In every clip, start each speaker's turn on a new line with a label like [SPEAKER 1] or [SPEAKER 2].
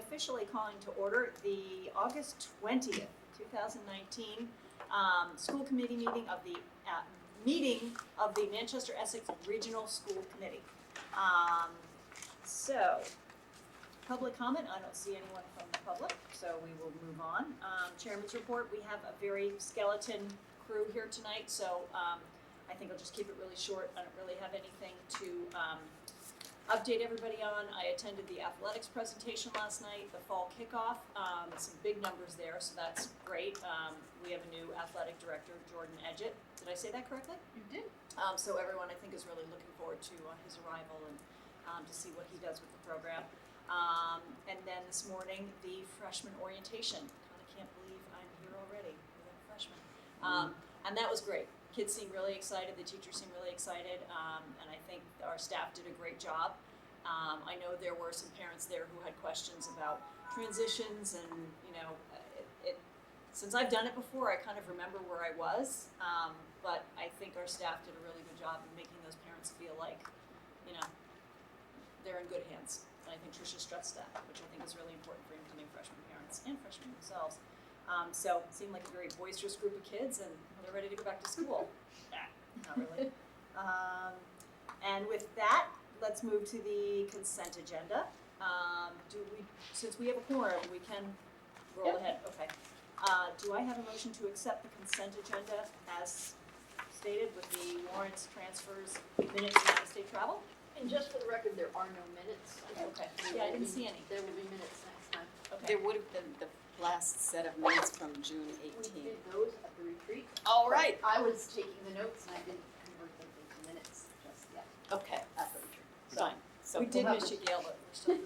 [SPEAKER 1] officially calling to order the August twentieth, two thousand nineteen, um, school committee meeting of the, uh, meeting of the Manchester Essex Regional School Committee. Um, so, public comment, I don't see anyone from the public, so we will move on. Um, chairman's report, we have a very skeleton crew here tonight, so, um, I think I'll just keep it really short. I don't really have anything to, um, update everybody on. I attended the athletics presentation last night, the fall kickoff, um, some big numbers there, so that's great. Um, we have a new athletic director, Jordan Edgett. Did I say that correctly?
[SPEAKER 2] You did.
[SPEAKER 1] Um, so everyone, I think, is really looking forward to uh, his arrival and um, to see what he does with the program. Um, and then this morning, the freshman orientation. Kind of can't believe I'm here already. We're a freshman. Um, and that was great. Kids seem really excited. The teachers seem really excited. Um, and I think our staff did a great job. Um, I know there were some parents there who had questions about transitions and, you know, uh, it, it, since I've done it before, I kind of remember where I was. Um, but I think our staff did a really good job in making those parents feel like, you know, they're in good hands. And I think Tricia stressed that, which I think is really important for incoming freshman parents and freshmen themselves. Um, so it seemed like a very boisterous group of kids, and they're ready to go back to school. Ah, Not really. Um, and with that, let's move to the consent agenda. Um, do we, since we have a quorum, we can roll
[SPEAKER 2] Yep.
[SPEAKER 1] ahead, okay. Uh, do I have a motion to accept the consent agenda as stated with the warrants, transfers, minutes, and out-of-state travel?
[SPEAKER 2] And just for the record, there are no minutes.
[SPEAKER 1] Okay, yeah, I didn't see any,
[SPEAKER 2] There will be minutes next time.
[SPEAKER 1] okay.
[SPEAKER 3] There would have been the last set of minutes from June
[SPEAKER 2] We
[SPEAKER 3] 18.
[SPEAKER 2] did those at the retreat.
[SPEAKER 3] All right,
[SPEAKER 2] I was taking the notes and I didn't convert them into minutes just yet
[SPEAKER 3] okay,
[SPEAKER 2] at the retreat.
[SPEAKER 3] fine. So
[SPEAKER 1] We did
[SPEAKER 2] we'll
[SPEAKER 1] miss
[SPEAKER 2] have-
[SPEAKER 1] you, Gail, but we're still.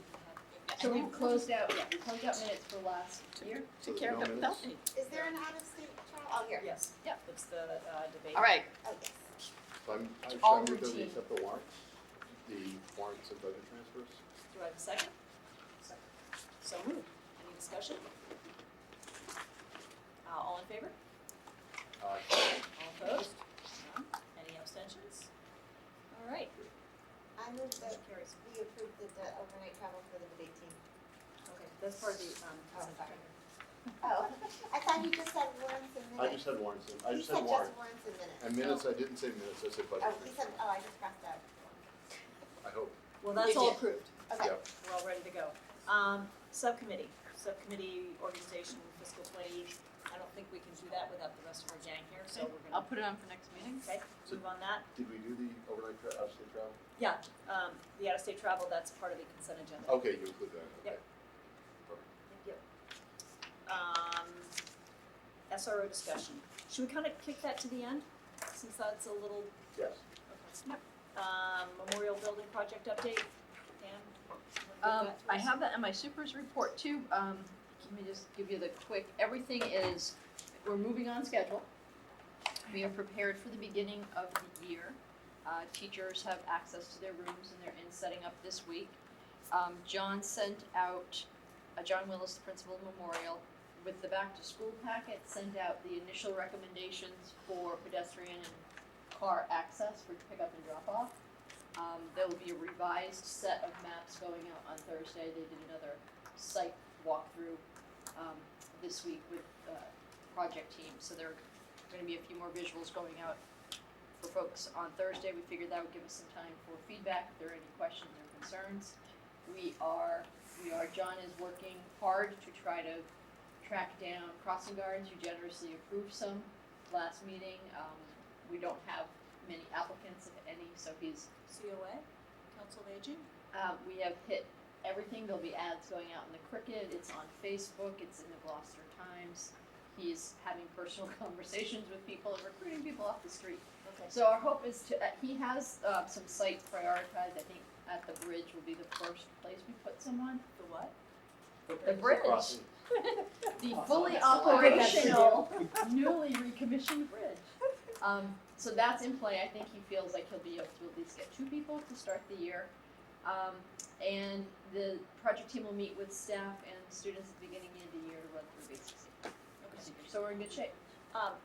[SPEAKER 2] So we've closed out, yeah, we closed out minutes for last year.
[SPEAKER 3] Took care of
[SPEAKER 4] No
[SPEAKER 3] it
[SPEAKER 4] minutes.
[SPEAKER 3] without me.
[SPEAKER 5] Is there an out-of-state trial? Oh, here.
[SPEAKER 1] Yes.
[SPEAKER 2] Yep.
[SPEAKER 1] It's the uh, debate.
[SPEAKER 3] All right,
[SPEAKER 5] Oh, yes.
[SPEAKER 4] So I'm, I'm
[SPEAKER 2] All
[SPEAKER 4] trying to do
[SPEAKER 2] routine.
[SPEAKER 4] the accept the warrants, the warrants and budget transfers.
[SPEAKER 1] Do I have a second? So moved. Any discussion? Uh, all in favor? All
[SPEAKER 4] Uh,
[SPEAKER 1] opposed? None? Any abstentions? All right,
[SPEAKER 5] I move that
[SPEAKER 1] motion carries.
[SPEAKER 5] we approve the de- overnight travel for the debate team.
[SPEAKER 1] Okay, that's part of the, um, consent
[SPEAKER 5] sorry.
[SPEAKER 1] agenda.
[SPEAKER 5] Oh, I thought you just said warrants and
[SPEAKER 4] I just
[SPEAKER 5] minutes.
[SPEAKER 4] had warrants, and- I
[SPEAKER 5] You
[SPEAKER 4] just had
[SPEAKER 5] said just
[SPEAKER 4] warrants.
[SPEAKER 5] warrants and minutes.
[SPEAKER 4] And minutes, I didn't say minutes, I said budget
[SPEAKER 5] Oh, he
[SPEAKER 4] transfers,
[SPEAKER 5] said, oh, I just crossed out.
[SPEAKER 4] I hope.
[SPEAKER 1] Well, that's
[SPEAKER 3] You
[SPEAKER 1] all
[SPEAKER 3] did.
[SPEAKER 1] approved.
[SPEAKER 5] Okay.
[SPEAKER 4] Yeah.
[SPEAKER 1] We're all ready to go. Um, subcommittee, subcommittee organization fiscal twenty. I don't think we can do that without the rest of our gang here, so we're
[SPEAKER 3] I'll
[SPEAKER 1] gonna,
[SPEAKER 3] put it on for next meeting.
[SPEAKER 1] okay, move on that.
[SPEAKER 4] Did we do the overnight tra- out-of-state travel?
[SPEAKER 1] Yeah, um, the out-of-state travel, that's part of the consent agenda.
[SPEAKER 4] Okay, you include that, okay.
[SPEAKER 1] Yep. Yep. Um, SRO discussion. Should we kind of kick that to the end, since that's a little,
[SPEAKER 4] Yes.
[SPEAKER 1] okay. Um, Memorial Building Project update, Dan? you wanna give
[SPEAKER 2] Um,
[SPEAKER 1] that to
[SPEAKER 2] I
[SPEAKER 1] us?
[SPEAKER 2] have that in my supers report too, um, let me just give you the quick, everything is, we're moving on schedule. We are prepared for the beginning of the year, uh, teachers have access to their rooms and they're in setting up this week. Um, John sent out, uh, John Willis, the principal of Memorial, with the back to school packet, sent out the initial recommendations for pedestrian and car access for pickup and drop off. Um, there will be a revised set of maps going out on Thursday. They did another site walkthrough, um, this week with, uh, project team. So there are gonna be a few more visuals going out for folks on Thursday. We figured that would give us some time for feedback, if there are any questions or concerns. We are, we are, John is working hard to try to track down crossing guards. You generously approved some last meeting. Um, we don't have many applicants, if any, so he's
[SPEAKER 1] COA, Council of Aging?
[SPEAKER 2] um, we have hit everything. There'll be ads going out in the Cricket. It's on Facebook. It's in the Gloucester Times. He's having personal conversations with people and recruiting people off the street.
[SPEAKER 1] Okay.
[SPEAKER 2] So our hope is to. Uh, he has uh, some sites prioritized. I think at the bridge will be the first place we put someone.
[SPEAKER 1] The what?
[SPEAKER 2] The bridge,
[SPEAKER 4] Crossing.
[SPEAKER 2] the fully
[SPEAKER 5] that's
[SPEAKER 2] operational, newly recommissioned bridge. Um, so that's in play. I think he feels like he'll be able to at least get two people to start the year. Um, and the project team will meet with staff and students at the beginning of the year to run through basic safety
[SPEAKER 1] Okay.
[SPEAKER 2] procedures. So we're in good shape.
[SPEAKER 1] Um,